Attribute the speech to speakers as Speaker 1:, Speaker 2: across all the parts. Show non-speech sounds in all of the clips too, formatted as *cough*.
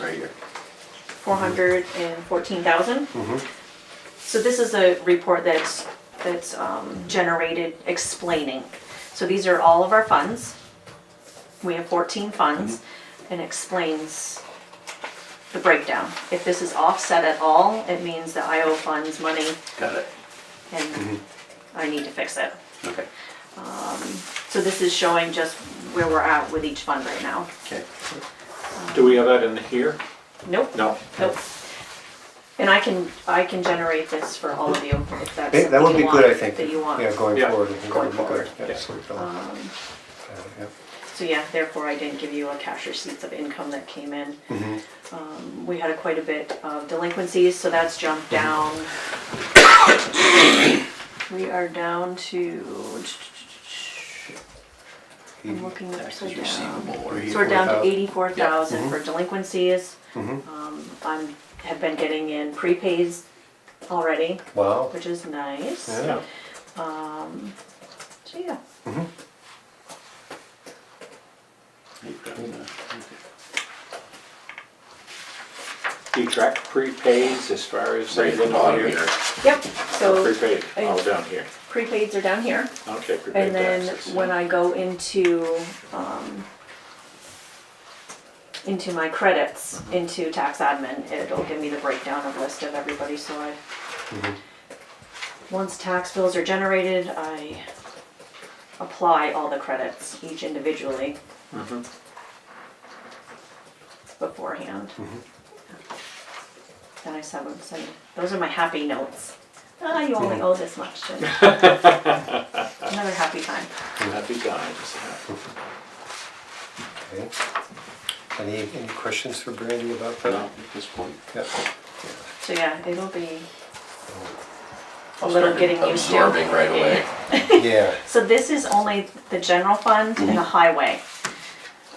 Speaker 1: right here.
Speaker 2: four hundred and fourteen thousand.
Speaker 1: Mhm.
Speaker 2: So this is a report that's, that's um, generated explaining. So these are all of our funds. We have fourteen funds and explains the breakdown. If this is offset at all, it means that I owe funds money
Speaker 1: Got it.
Speaker 2: and I need to fix it.
Speaker 1: Okay.
Speaker 2: So this is showing just where we're at with each fund right now.
Speaker 1: Okay.
Speaker 3: Do we have that in here?
Speaker 2: Nope.
Speaker 3: No.
Speaker 2: Nope. And I can, I can generate this for all of you if that's
Speaker 4: Hey, That would
Speaker 2: something you
Speaker 4: be good, I
Speaker 2: want,
Speaker 4: think.
Speaker 2: that you want.
Speaker 4: Yeah, going
Speaker 3: Yeah.
Speaker 4: forward. I think that
Speaker 2: Going
Speaker 4: would be
Speaker 2: forward. Um,
Speaker 4: good. Yeah,
Speaker 3: Yeah.
Speaker 4: so we feel- uh, yeah.
Speaker 2: So yeah, therefore I didn't give you a cash receipts of income that came in.
Speaker 4: Mm-hmm.
Speaker 2: Um, We had a quite a bit of delinquencies, so that's jumped down.
Speaker 4: Mm-hmm.
Speaker 2: We are down to, I'm looking
Speaker 1: Taxes
Speaker 2: upside down.
Speaker 1: receivable or
Speaker 2: So
Speaker 1: here.
Speaker 2: we're down to
Speaker 4: 84,000.
Speaker 2: eighty-four thousand
Speaker 4: mm-hmm.
Speaker 2: for delinquencies. Um, I'm, have been getting in prepaids already,
Speaker 4: Wow.
Speaker 2: which is nice.
Speaker 4: Yeah.
Speaker 2: So yeah,
Speaker 3: Do you track prepaids as far as
Speaker 1: Right
Speaker 3: say
Speaker 1: at the
Speaker 3: the
Speaker 1: bottom here.
Speaker 2: yep, so
Speaker 3: Prepaid, all down here.
Speaker 2: prepaids are down here.
Speaker 3: Okay, prepaid
Speaker 2: And then
Speaker 3: taxes.
Speaker 2: when I go into, um, into my credits, into tax admin, it'll give me the breakdown of list of everybody, so I, once tax bills are generated, I apply all the credits, each individually
Speaker 3: Mhm.
Speaker 2: beforehand. Then I send them, send, those are my happy notes. Ah, you only owe this much. and- Another happy time.
Speaker 3: Happy times.
Speaker 4: Okay. Any, any questions for Brandy about
Speaker 1: No,
Speaker 4: that?
Speaker 1: at this point.
Speaker 4: Yeah.
Speaker 2: So yeah, it'll be a
Speaker 1: I'll
Speaker 2: little
Speaker 1: start
Speaker 2: getting used to.
Speaker 1: Absorbing right away.
Speaker 4: Yeah,
Speaker 2: So this is only the general fund and the highway,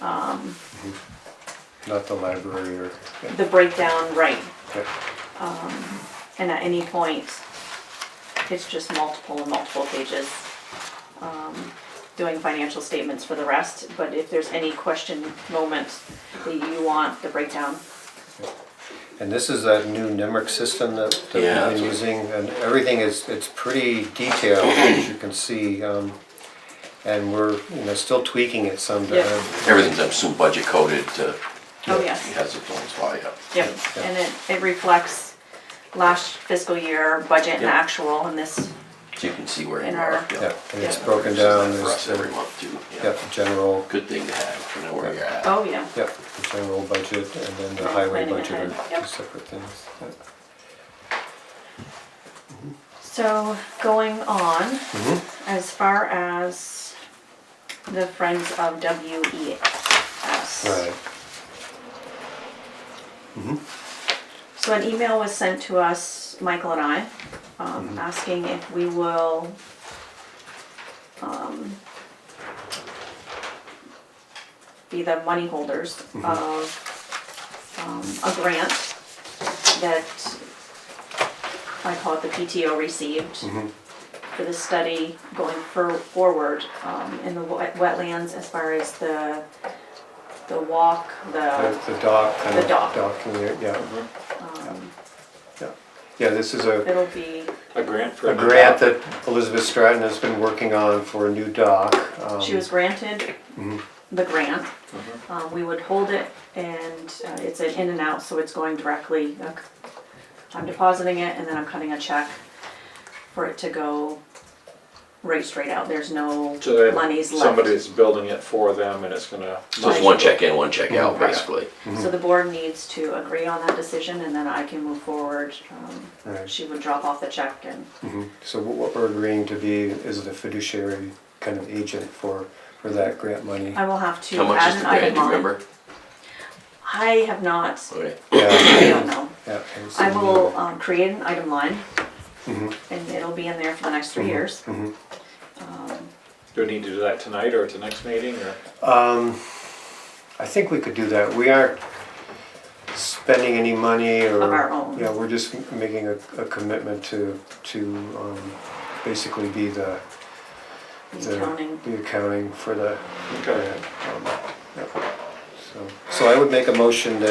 Speaker 4: not the library or, yeah,
Speaker 2: the breakdown, right.
Speaker 4: yeah.
Speaker 2: And at any point, it's just multiple and multiple pages, um, doing financial statements for the rest. But if there's any question moment that you want the breakdown,
Speaker 4: And this is that new NIMRIC system that that
Speaker 1: Yeah,
Speaker 4: we've
Speaker 1: that's
Speaker 4: been
Speaker 1: what-
Speaker 4: using, and everything is, it's pretty detailed, as you can see. um, And we're, you know, still tweaking it some. to
Speaker 2: Yeah.
Speaker 4: have-
Speaker 1: Everything's up so budget coded to,
Speaker 2: oh
Speaker 1: it
Speaker 2: yes.
Speaker 1: has its own slide up.
Speaker 2: Yep, and it, it reflects last fiscal year budget and
Speaker 1: Yep.
Speaker 2: actual and this,
Speaker 1: So you can see where
Speaker 2: In
Speaker 1: you
Speaker 2: our-
Speaker 1: are.
Speaker 4: Yeah, and it's
Speaker 2: Yeah.
Speaker 4: broken
Speaker 1: This is that
Speaker 4: down,
Speaker 1: For us
Speaker 4: there's,
Speaker 1: every
Speaker 4: the-
Speaker 1: month too.
Speaker 4: yeah, general,
Speaker 1: Good thing to have, to know where you're at.
Speaker 2: oh yeah.
Speaker 4: Yep, the general budget and then the
Speaker 2: Right,
Speaker 4: highway
Speaker 2: planning
Speaker 4: budget
Speaker 2: ahead.
Speaker 4: are two
Speaker 2: Yep.
Speaker 4: separate things. Yep.
Speaker 2: So going on, as far as the Friends of E WES.
Speaker 4: Right,
Speaker 2: So an email was sent to us, Michael and I, um, asking if we will um, be the money holders of um, a grant that I call it the PTO received for the study going for- forward um, in the wet- wetlands as far as the, the walk, the,
Speaker 4: The- the dock, kind
Speaker 2: Uh, The Um,
Speaker 4: of
Speaker 2: dock.
Speaker 4: dock, in there, yeah. Yeah. Yeah, this is a
Speaker 2: it'll be,
Speaker 3: A grant for.
Speaker 4: a grant that Elizabeth Stratton has been working on for a new dock. um,
Speaker 2: she was granted the grant. Um, We would hold it and uh, it's an in and out, so it's going directly, uh, I'm depositing it and then I'm cutting a check for it to go right straight out. There's no
Speaker 3: So that
Speaker 2: monies left.
Speaker 3: somebody's building it for them and it's gonna.
Speaker 1: So it's one check in, one check out,
Speaker 2: Right.
Speaker 1: basically.
Speaker 2: So the board needs to agree on that decision and then I can move forward. Um,
Speaker 4: Right.
Speaker 2: She would drop off the check and,
Speaker 4: So what what we're agreeing to be is the fiduciary kind of agent for, for that grant money.
Speaker 2: *coughs* I will have to
Speaker 1: How much
Speaker 2: add
Speaker 1: is the
Speaker 2: an
Speaker 1: grant,
Speaker 2: item
Speaker 1: do you
Speaker 2: on.
Speaker 1: remember?
Speaker 2: I have not,
Speaker 1: Okay.
Speaker 2: I
Speaker 4: Yeah,
Speaker 2: don't know.
Speaker 4: yeah, and so-
Speaker 2: I will um, create an item line, and it'll be in there for the next three years.
Speaker 3: Do we need to do that tonight or at the next meeting or?
Speaker 4: I think we could do that. We aren't spending any money or.
Speaker 2: Of our own.
Speaker 4: Yeah, we're just m- making a, a commitment to, to, um, basically be the. Mm-hmm.
Speaker 2: The accounting.
Speaker 4: The accounting for the.
Speaker 3: Okay.
Speaker 4: grant, um, yeah. So, so I would make a motion that